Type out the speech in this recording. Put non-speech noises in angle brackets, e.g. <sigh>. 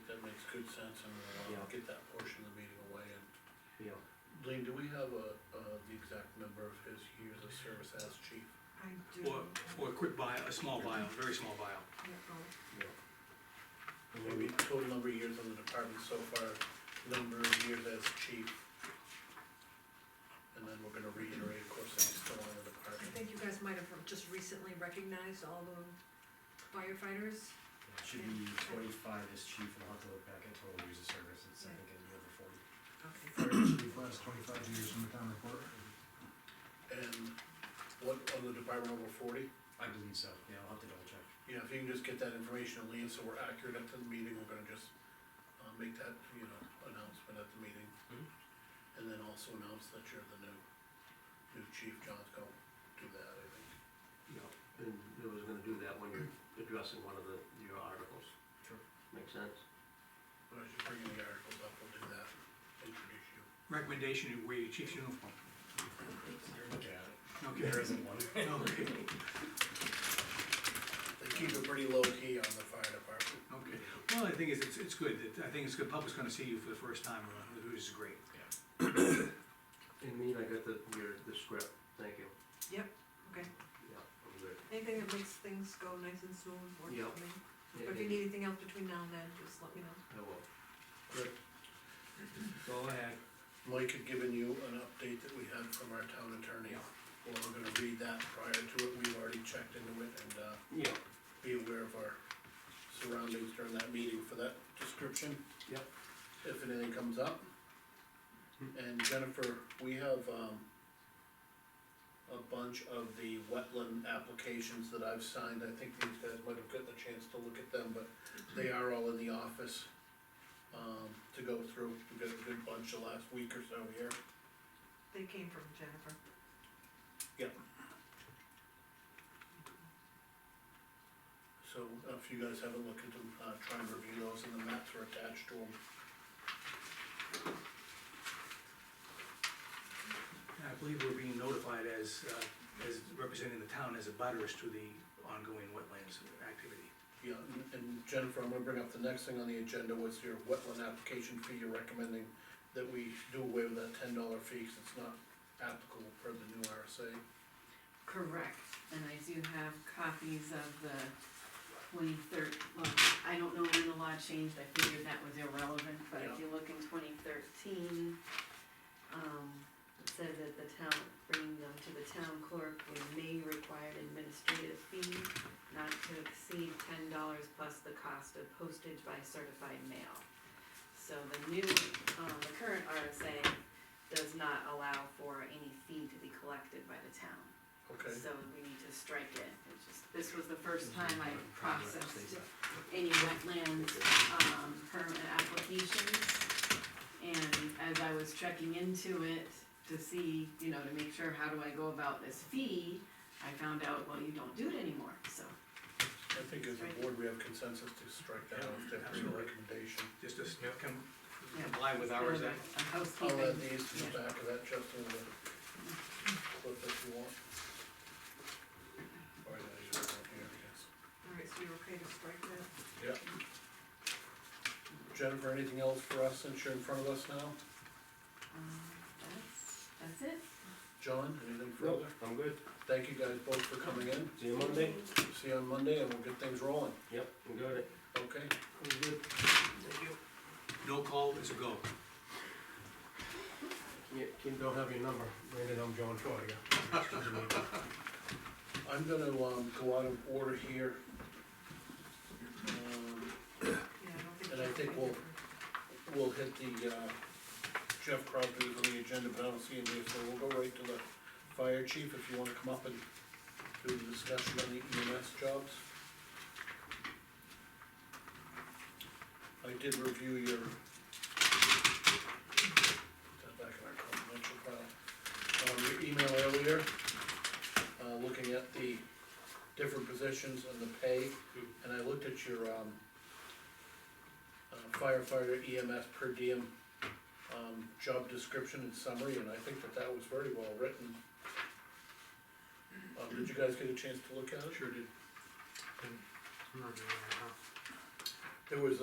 two cents and uh, Yeah. get that portion of the meeting away. And yeah. Lean, do we have a, uh, the exact number of his years of service as chief? I do. For, for a quick bio, a small bio, very small bio. Yeah, oh. Maybe total number of years in the department so far, number of years as chief. And then we're gonna reiterate, of course, that he's still on the I department. think you guys might have just recently recognized all the firefighters. It Should be twenty-five as chief, and I'll have to look back at total years of service, it's I think in the over forty. Okay. Chief last twenty-five years in the town report. And what, on the department over forty? I believe so, yeah, I'll have to double check. Yeah, if you can just get that information, Lean, so we're accurate at the meeting, we're gonna just, uh, make that, you know, announcement at the meeting. Mhm. And then also announce that you're the new, new chief, John's gonna do that, I think. Yeah, and it was gonna do that when you're addressing one of the, your articles. Sure. Makes sense? But as you bring the articles up, we'll do that, introduce you. Recommendation to wear your chief's uniform. You're looking at it. Okay. There isn't one. <laughs> Okay, They keep it pretty low key on the fire department. okay. Well, the thing is, it's, it's good, that- I think it's good, public's gonna see you for the first time, uh, which is great. And mean, I got the, your, the script, thank you. Yep, okay. Yeah, I'm good. Anything that makes things go nice and smooth works Yeah. for me. Yeah, But if you need anything else between now and then, just let me know. I will. That's all I had. Mike had given you an update that we had from our town attorney. Well, we're gonna read that prior to it, we've already checked into it and, uh, Yeah, be aware of our surroundings during that meeting for that description. Yep. If anything comes up. And Jennifer, we have, um, a bunch of the wetland applications that I've signed, I think these guys might have gotten a chance to look at them, but they are all in the office, um, to go through, we got a good bunch the last week or so here. They came from Jennifer. So if you guys haven't looked at them, uh, try and review those and the maps are attached to them. And I believe we're being notified as, uh, as representing the town as a butters to the ongoing wetlands activity. Yeah, and- and Jennifer, I'm gonna bring up the next thing on the agenda was your wetland application fee, you're recommending that we do away with that ten dollar fee, 'cause it's not applicable per the new RSA. Correct, and I do have copies of the twenty thirteen. well, I don't know when the law changed, I figured that was irrelevant, but if you look in twenty thirteen, um, it said that the town, bringing them to the town clerk, we may require an administrative fee not to exceed ten dollars plus the cost of postage by certified mail. So the new, um, the current RSA does not allow for any fee to be collected by the town. Okay, So we need to strike it, it's just, this was the first time I processed any wetland, um, permit applications. And as I was checking into it to see, you know, to make sure how do I go about this fee, I found out, well, you don't do it anymore, so. I think as a board, we have consensus to strike that off, that's your recommendation. Just to s- Yep. com- Yeah. comply with ours, uh, A that, I'll add housekeeping, these to the back of that, Justin, with a clip if you want. Or, uh, you don't want here, I guess. All right, so you're okay to strike that? Jennifer, anything else for us since you're in front of us now? um, that's, that's it. John, anything Nope, further? I'm good. Thank you guys both for coming in, See you Monday? see you on Monday and we'll get things rolling, Yep, we got it. okay? I'm good. no call is a go. Yeah, Kim, don't have your number, Brandon, I'm John Troy, yeah. I'm gonna, um, go out of order here. Um, Yeah, I don't think. And I think we'll- We'll hit the, uh, Jeff Crosby's on the agenda, but I don't see him here, so we'll go right to the fire chief if you wanna come up and do the discussion on the EMS jobs. I did review your. Put that back in our confidential file. Um, your email earlier, uh, looking at the different positions and the pay, and I looked at your, um, uh, firefighter EMS per diem, um, job description and summary, and I think that that was very well written. Um, did you guys get a chance to look at it? Sure did. There was